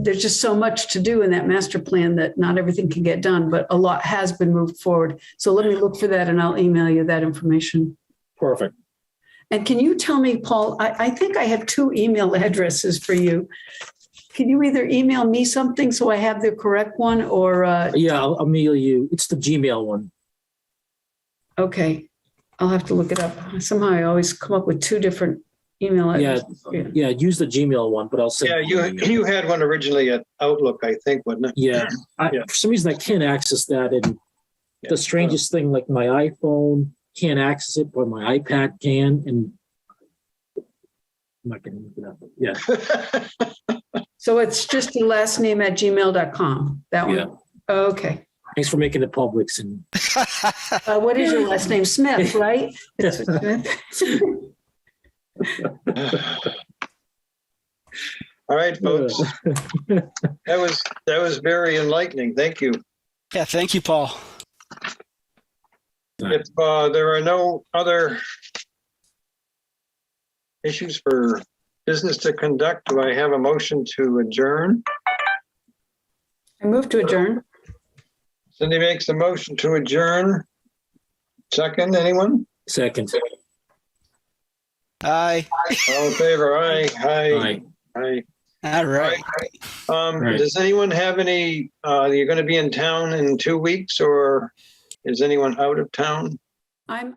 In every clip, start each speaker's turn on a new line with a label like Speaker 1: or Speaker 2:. Speaker 1: there's just so much to do in that master plan that not everything can get done, but a lot has been moved forward. So let me look for that and I'll email you that information.
Speaker 2: Perfect.
Speaker 1: And can you tell me, Paul, I, I think I have two email addresses for you. Can you either email me something so I have the correct one or, uh,
Speaker 2: Yeah, I'll, I'll mail you. It's the Gmail one.
Speaker 1: okay, I'll have to look it up. Somehow I always come up with two different email
Speaker 2: Yeah,
Speaker 1: addresses. Yeah.
Speaker 2: yeah, use the Gmail one, but I'll send.
Speaker 3: Yeah, you, you had one originally at Outlook, I think, wasn't it?
Speaker 2: Yeah, I,
Speaker 3: Yeah.
Speaker 2: for some reason I can't access that, and the strangest thing, like my iPhone can't access it, but my iPad can, and. I'm not gonna look it up. Yeah,
Speaker 1: So it's just your last name at gmail.com, that
Speaker 2: Yeah.
Speaker 1: one? Okay.
Speaker 2: thanks for making it public, and
Speaker 1: Uh, what is your last name? Smith, right?
Speaker 3: All right, folks, that was, that was very enlightening. Thank you.
Speaker 4: Yeah, thank you, Paul.
Speaker 3: If uh, there are no other issues for business to conduct, do I have a motion to adjourn?
Speaker 1: I move to adjourn.
Speaker 3: Cindy makes a motion to adjourn. Second, anyone?
Speaker 2: second.
Speaker 4: Aye.
Speaker 3: All in favor? Aye, aye,
Speaker 2: Aye.
Speaker 3: aye.
Speaker 4: All right.
Speaker 3: Um,
Speaker 2: Right.
Speaker 3: does anyone have any, uh, you're gonna be in town in two weeks or is anyone out of town?
Speaker 1: I'm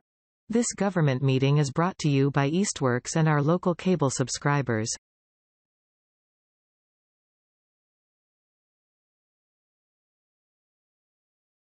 Speaker 5: This government meeting is brought to you by Eastworks and our local cable subscribers.